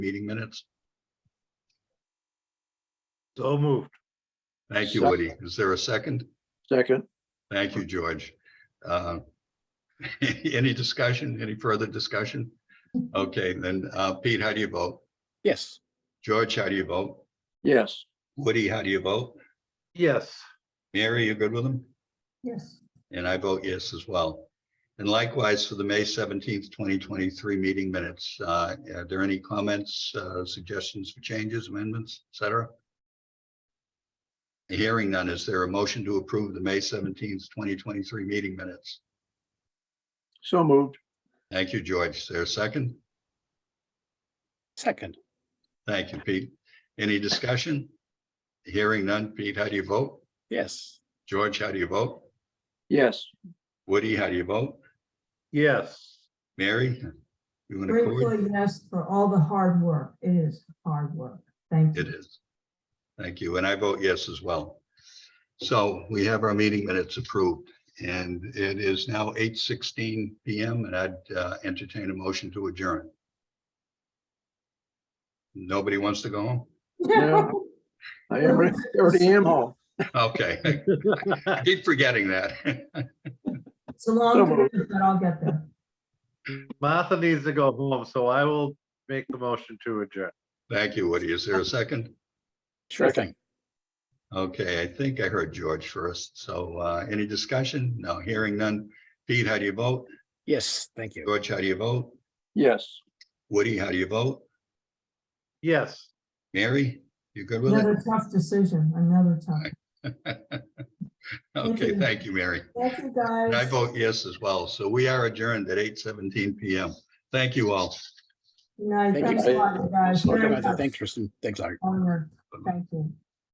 meeting minutes. So moved. Thank you, Woody. Is there a second? Second, Thank you, George. Uh, Any discussion, any further discussion? Okay, then, uh, Pete, how do you vote? Yes, George, how do you vote? yes, Woody, how do you vote? Yes, Mary, you good with them? Yes, And I vote yes as well. And likewise for the May seventeenth, twenty twenty-three meeting minutes, uh, are there any comments, uh, suggestions for changes, amendments, et cetera? Hearing none, is there a motion to approve the May seventeenth, twenty twenty-three meeting minutes? so moved, Thank you, George. Is there a second? second, Thank you, Pete. Any discussion? Hearing none. Pete, how do you vote? yes, George, how do you vote? yes, Woody, how do you vote? yes, Mary? You want to? grateful, yes, for all the hard work. It is hard work. Thank you. It is. Thank you, and I vote yes as well. So we have our meeting minutes approved, and it is now eight sixteen PM, and I'd uh, entertain a motion to adjourn. Nobody wants to go home? Yeah. I already already am home. Okay, I keep forgetting that. It's a long So time, but I'll get there. Martha needs to go home, so I will make the motion to adjourn. Thank you, Woody. Is there a second? sure thing. Okay, I think I heard George first, so uh, any discussion? No, hearing none. Pete, how do you vote? Yes, thank you. George, how do you vote? Yes. Woody, how do you vote? Yes. Mary, you good with it? Another tough decision, another tough. Okay, you. thank you, Mary. Thank you, And guys. I vote yes as well. So we are adjourned at eight seventeen PM. Thank you all. Good night. Thank you. Thanks a lot, you guys. Sorry Very about that. tough Thanks, Kristen. Thanks, Art. homework. Thank you.